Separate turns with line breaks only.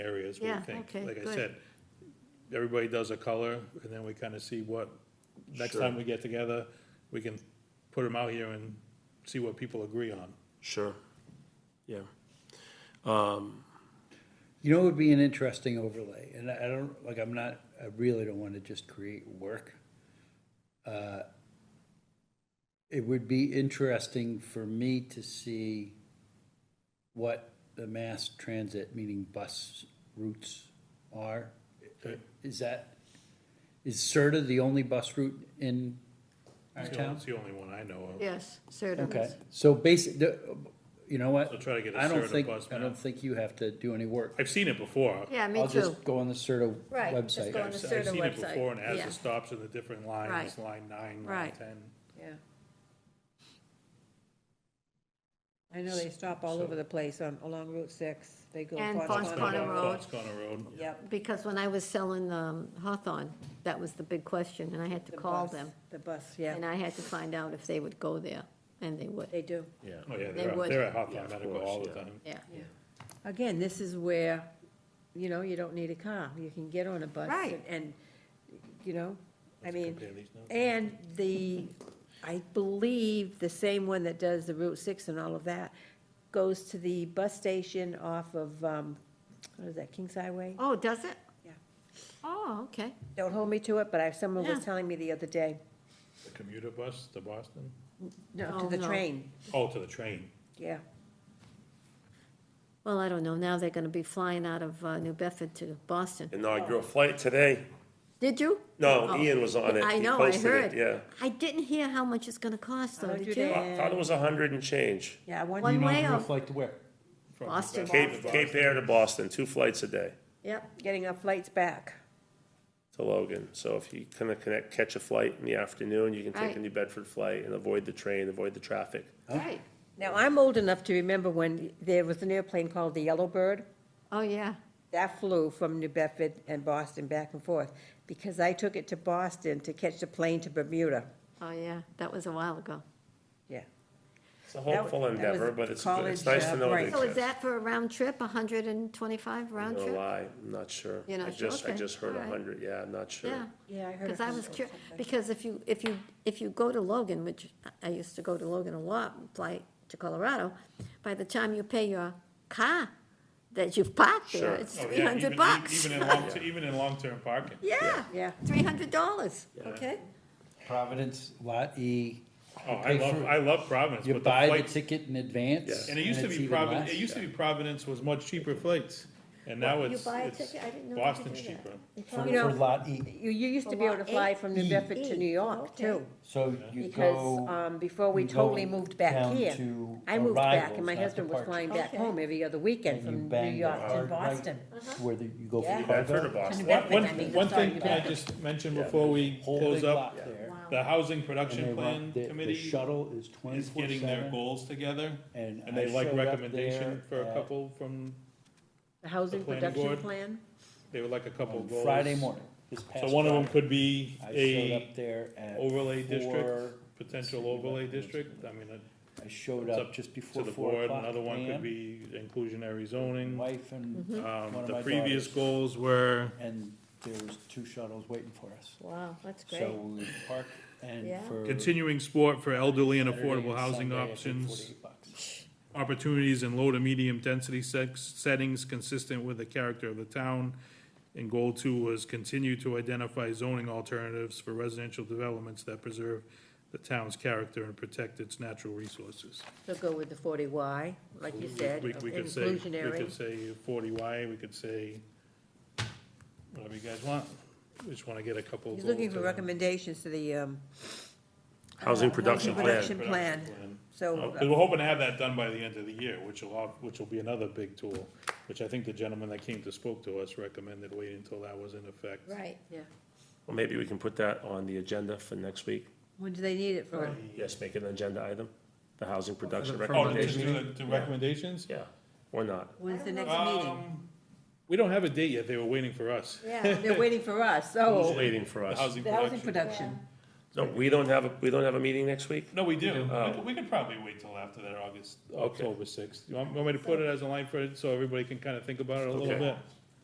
is, we
Yeah,
think.
okay,
Like I
good.
said, everybody does a color, and then we kind of see what, next time we get together, we can put them out here and see what people agree on.
Sure, yeah.
You know, it would be an interesting overlay, and I I don't, like, I'm not, I really don't wanna just create work. Uh, It would be interesting for me to see what the mass transit, meaning bus routes are. Is that, is Serta the only bus route in our
It's the only-
town?
it's the only one I know of.
Yes, Sardis.
Okay, so basic, the- you know what?
So try to get a
I don't
Serta
think-
bus
I
map.
don't think you have to do any work.
I've seen it before.
Yeah, me
I'll
too.
just go on the Serta
Right, just
website.
go on
I've
the
se-
Serta
I've
website,
seen it before, and it has
yeah.
the stops and the different lines,
Right.
line nine, line
Right.
ten.
Yeah. I know they stop all over the place on, along Route Six, they go.
And
Fox
Fox
Pond.
Pond. Road.
It's Connor Road. Oh,
Yep.
Because when I was selling um, Hawthorne, that was the big question, and I had to
the
call
bus-
them.
The bus, yeah,
And I had to find out if they would go there, and they would,
they do.
Oh, yeah,
They
they're, at-
would.
they're at
Yeah,
Hawthorne
of
Medical
course,
all the
yeah.
time.
yeah.
Again, this is where, you know, you don't need a car, you can get on a bus.
Right.
and- And, you know, I mean,
compare these notes.
and the, I believe the same one that does the Route Six and all of that goes to the bus station off of, um, what is that, Kings Highway?
Oh, does it?
Yeah.
Oh, okay.
Don't hold me to it, but I, someone was
Yeah.
telling me the other day,
The commuter bus to Boston?
no,
Oh,
to the
no.
train,
Oh, to the train.
yeah.
Well, I don't know, now they're gonna be flying out of uh, New Bedford to Boston.
Inaugural flight today.
Did you?
No,
Oh.
Ian was on it.
I
He
know, I
posted it,
heard.
Yeah.
I didn't hear how much it's gonna cost, though,
Oh,
did
did
you?
they?
I thought it was a hundred and change.
Yeah, I
One
wonder,
way
Inaugural
of-
flight to where?
from
Boston.
Cape, Cape Air to Boston, two flights a day
Yep,
getting our flights back.
to Logan. So if you kind of connect, catch a flight in the afternoon, you can take
Right.
a New Bedford flight and avoid the train, avoid the traffic.
right.
Now, I'm old enough to remember when there was an airplane called the Yellowbird.
Oh, yeah.
That flew from New Bedford and Boston back and forth, because I took it to Boston to catch the plane to Bermuda,
Oh, yeah, that was a while ago.
yeah.
It's a hopeful
That- that was
endeavor, but it's, good- it's
college,
nice
uh,
to know
break.
they
So is
exist.
that for a round trip, hundred and twenty-five round
No
trip?
lie, I'm not sure.
You're
I
not sure?
just- I
Okay.
just heard
All
a
right.
hundred, yeah, I'm not sure.
Yeah.
Yeah, I heard.
Because I was curious, because if you, if you, if you go to Logan, which I- I used to go to Logan a lot, fly to Colorado, by the time you pay your car that you've parked there,
Sure.
it's
Oh, yeah,
three
even-
hundred
e-
bucks.
Even in long, even in long-term parking.
Yeah,
Yeah.
three hundred dollars, okay?
Providence, Lot E.
Oh, I
pay
love,
for-
I love Providence,
You
but the
buy the
flights,
ticket in advance.
and it used to
it's
be
even
Providence,
less.
it used to be Providence was much cheaper flights, and now
You
it's,
buy a
it's
ticket, I didn't know. they could
Boston's
do that.
cheaper.
You
For,
probably-
know-
for Lot E.
You, you used to be able to
Lot
fly
eight.
from New Bedford to New York,
Okay.
too,
So you
because,
go,
um, before we
you go
totally moved back
down
here.
to
I moved back,
arrivals,
and my
not
husband was
departure.
flying back
Okay.
home every other weekend
and you
from New
bang the
York to
hard right
Boston. Uh-huh.
to where the- you go
Yeah.
for
I've heard of
cargo.
Boston.
One, one,
I mean,
one
sorry,
thing
you
can I
bet.
just mention before we close up, the Housing
And they
Production Plan
run- the- The
Committee
shuttle is
is getting their
24/7.
goals together,
and
and
I
they like
showed up
recommendation
there uh,
for a
at-
couple from,
The housing
The planning
production
board.
plan?
they would like a couple
on
goals.
Friday morning, this past
So one of them
Friday.
could be
I showed
a
up there at
overlay
four-
district, potential overlay district, I mean, it-
I showed
It's
up
up
just before
to the
four
board,
o'clock
another one could
AM.
be inclusionary zoning.
Wife and
Mm-hmm.
one
Um,
of
the
my
previous
daughters.
goals were,
and there was two shuttles waiting for us.
Wow, that's
So
great.
we parked and
Yeah.
for.
continuing sport for elderly and
Saturday and
affordable housing
Sunday, I paid
options,
48 bucks.
opportunities in low to medium density sex, settings consistent with the character of the town. And goal two was continue to identify zoning alternatives for residential developments that preserve the town's character and protect its natural resources.
So go with the forty Y, like you said,
We, we could say, we could
inclusionary.
say forty Y, we could say whatever you guys want. We just wanna get a couple.
He's
goals
looking for
to-
recommendations to the, um,
Housing production
Oh,
housing
plan.
production plan, so.
Because Uh, we're hoping to have that done by the end of the year, which will, al- which will be another big tool, which I think the gentleman that came to spoke to us recommended waiting until that was in effect.
Right.
Yeah.
Well, maybe we can put that on the agenda for next week.
When do they need it for?
Yes, make it an agenda item, the housing production
Oh, just
recommendation.
do the, the recommendations?
Yeah, or not.
When's the next
Um,
meeting?
We don't have a date yet, they were waiting for us.
Yeah.
They're waiting for
Who's
us, so.
waiting for
Oh, The
us?
housing
The housing
production.
production.
No, we don't have, a we don't have a meeting next week?
No, we do, We
Oh.
could- we could probably wait till after that, August,
Okay.
October sixth. You want, want me to put it as a line for it, so everybody can kind of think about it a little
Okay.
bit?